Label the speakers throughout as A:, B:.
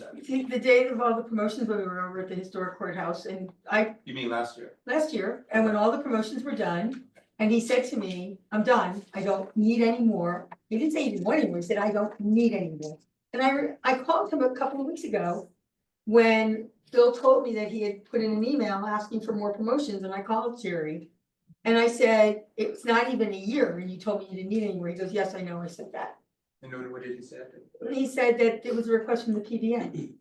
A: the, the date of all the promotions, when we were over at the historic courthouse and I,
B: You mean last year?
A: last year, and when all the promotions were done. And he said to me, I'm done, I don't need any more. He didn't say he didn't want any more, he said, I don't need any more. And I, re- I called him a couple of weeks ago. When Bill told me that he had put in an email asking for more promotions and I called Jerry. And I said, it's not even a year and you told me you didn't need any more. He goes, yes, I know, I said that.
B: And what what did he say?
A: He said that it was a request from the PBN.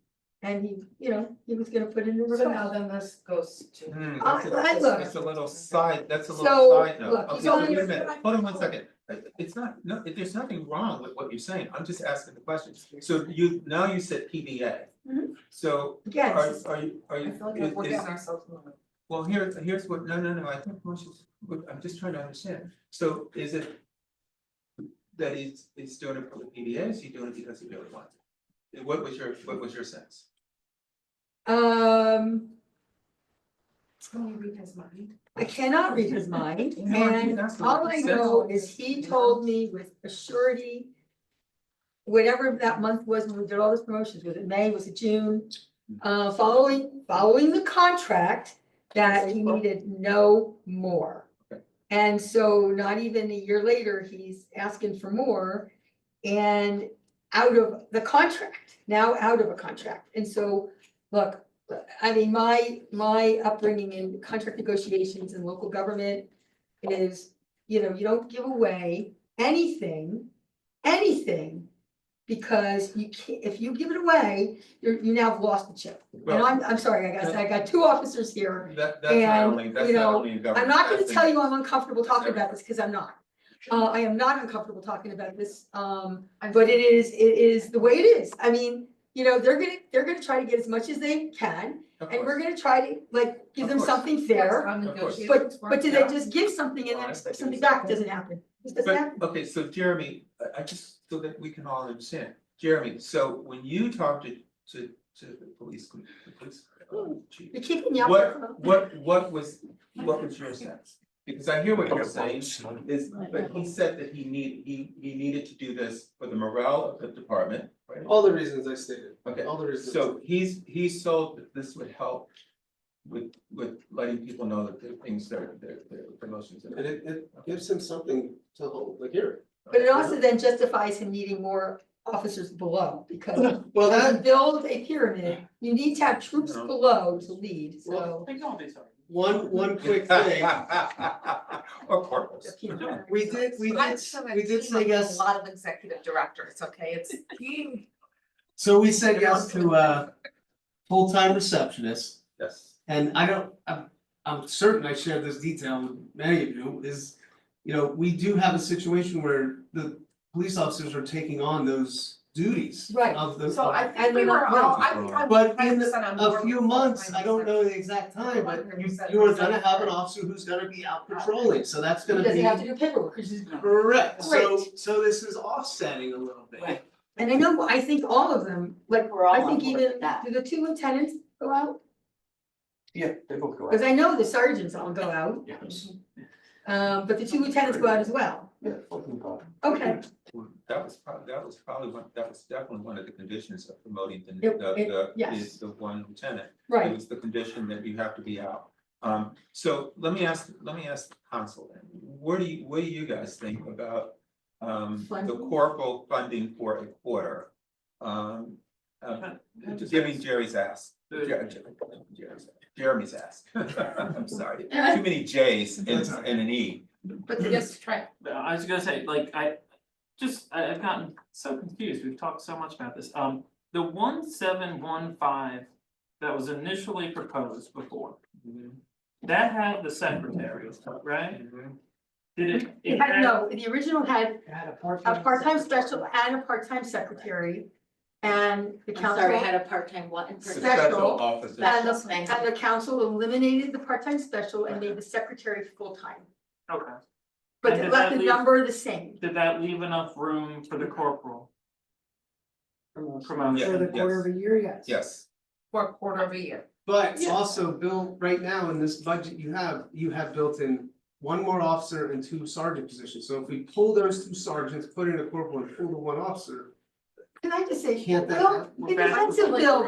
A: And he, you know, he was gonna put in the
C: So now
A: request.
C: then this goes to,
B: Hmm,
A: I-
B: that's a,
A: I look.
B: that's a little side, that's a little
A: So,
B: side note,
A: look,
B: okay,
A: you
B: so
A: don't
B: wait a minute,
A: understand.
B: hold on one second. Uh, It's not, no, there's nothing wrong with what you're saying, I'm just asking the question, so you, now you said PBA.
A: Mhm.
B: So are
A: Yes,
B: are you, are
C: I
B: you,
C: feel like
B: is-
C: we're
B: is-
C: getting ourselves in the way.
B: well, here's here's what, no, no, no, I think most is, what- I'm just trying to understand, so is it? That he's he's doing it for the PBA, is he doing it because he really wants it? What was your, what was your sense?
A: um,
C: Can you read his mind?
A: I cannot read his mind
B: No, I think
A: and
B: that's what
A: all
B: he
A: I
B: said.
A: know is he told me with a surety. Whatever that month was when we did all those promotions, was it May, was it June?
B: Mm-hmm.
A: Uh, following, following the contract that he needed no more. And so not even a year later, he's asking for more and out of the contract, now out of a contract. And so, look, I mean, my, my upbringing in contract negotiations and local government is, you know, you don't give away anything, anything. Because you can't, if you give it away, you're, you now have lost the chip. And
B: Well-
A: I'm, I'm sorry, I got, I got two officers here.
B: That that's not
A: And,
B: only, that's
A: you
B: not
A: know,
B: only a government.
A: I'm not gonna
B: that's a-
A: tell you I'm uncomfortable talking about this, cause I'm not. Uh, I am not uncomfortable talking about this, um, but it is, it is the way it is. I mean, you know, they're gonna, they're gonna try to get as much as they can.
B: of
A: And we're
B: course.
A: gonna try to like give
B: Of
A: them
B: course.
A: something fair,
B: Of course.
A: but but do they
B: Yeah.
A: just give something and then
B: Well, I
A: expect
B: think
A: something
B: it's-
A: back, doesn't happen, This doesn't happen.
B: But, okay, so Jeremy, I I just, so that we can all understand, Jeremy, so when you talk to to to the police, com- the police um, chief.
A: You're keeping me up.
B: What what what was, what was your sense? Because I hear what you're saying is, but he said that he need, he he needed to do this for the morale of the department, right?
D: All the reasons I stated,
B: Okay,
D: all the reasons.
B: So he's, he sold that this would help with, with letting people know that the things that are, their, their promotions. that are-
D: And it, it gives him something to hold, like here.
A: But it also then justifies him needing more officers below, because
D: Well,
A: as
D: that,
A: you build a pyramid, you need to have troops
B: No.
A: below to lead, so.
D: one, one quick thing,
B: Or corporals.
D: we did, we did, we did say yes,
C: A lot of executive directors, okay, it's he.
D: so we said yes to a full-time receptionist.
B: Yes.
D: And I don't, I'm, I'm certain I shared this detail with many of you, is, you know, we do have a situation where the police officers are taking on those duties
A: Right.
D: of the.
C: So I
A: And
C: think we
A: they're
C: were
A: not
C: all,
B: wrong.
C: I think I'm.
D: But in
C: 100% on board
D: a
C: with
D: few
C: full-time
D: months, I don't
C: exec-
D: know the exact time, but you,
C: 100%
D: you are gonna have an
C: executive.
D: officer who's gonna be out patrolling, so that's
A: He
D: gonna
A: doesn't have
D: be.
A: to do paperwork, he's just-
D: Correct, so,
A: Right.
D: so this is offsetting a little bit.
C: Right.
A: and I know, I think all of them, like,
E: We're all
A: I
E: on
A: think
E: board
A: even,
E: with that.
A: do the two lieutenants go out?
E: Yeah, they both go
A: Cause I know the sergeants all go out, um, but the two lieutenants go out as well,
E: Yeah, fucking God.
A: okay.
B: Well, That was probably, that was probably one, that was definitely one of the conditions of promoting the,
A: It- it-
B: the, the,
A: yes.
B: is the one lieutenant. It
A: Right,
B: was the condition that you have to be out. Um, so let me ask, let me ask the council, then. where do you, what do you guys think about um the
A: Funding?
B: corporal funding for a quarter? Um, uh, giving Jerry's ass, Jer- Jer- Jerry's- Jeremy's ass, I'm sorry, too many J's and
D: That's all right.
B: and an E.
C: But they just try,
F: Uh, I was gonna say, like, I just, I I've gotten so confused, we've talked so much about this, um, the one seven one five. That was initially proposed before, that had the secretary, right?
B: Mm-hmm.
F: Did it?
A: It
F: it
A: had-
F: had-
A: no, the original had a part-time special and a part-time secretary and the
E: I'm sorry, I
A: council.
E: had a part-time one in person.
B: Special
A: Special.
B: officer.
E: That-
A: And the, and the council eliminated the part-time special and made the secretary full-time,
F: Okay,
A: but
F: And
A: they
F: did
A: left
F: that
A: the
F: leave-
A: number the same.
F: did that leave enough room for the corporal promotion?
B: Yeah, yes,
A: a year, yes.
B: yes,
C: for a quarter of a year,
D: But also, Bill, right now in this budget you have, you have built in one more officer and two sergeant positions, so if we pull those two sergeants, put in a corporal and pull the one officer.
A: Can I just say,
D: Can't that
A: Bill,
D: happen?
A: in defense of Bill,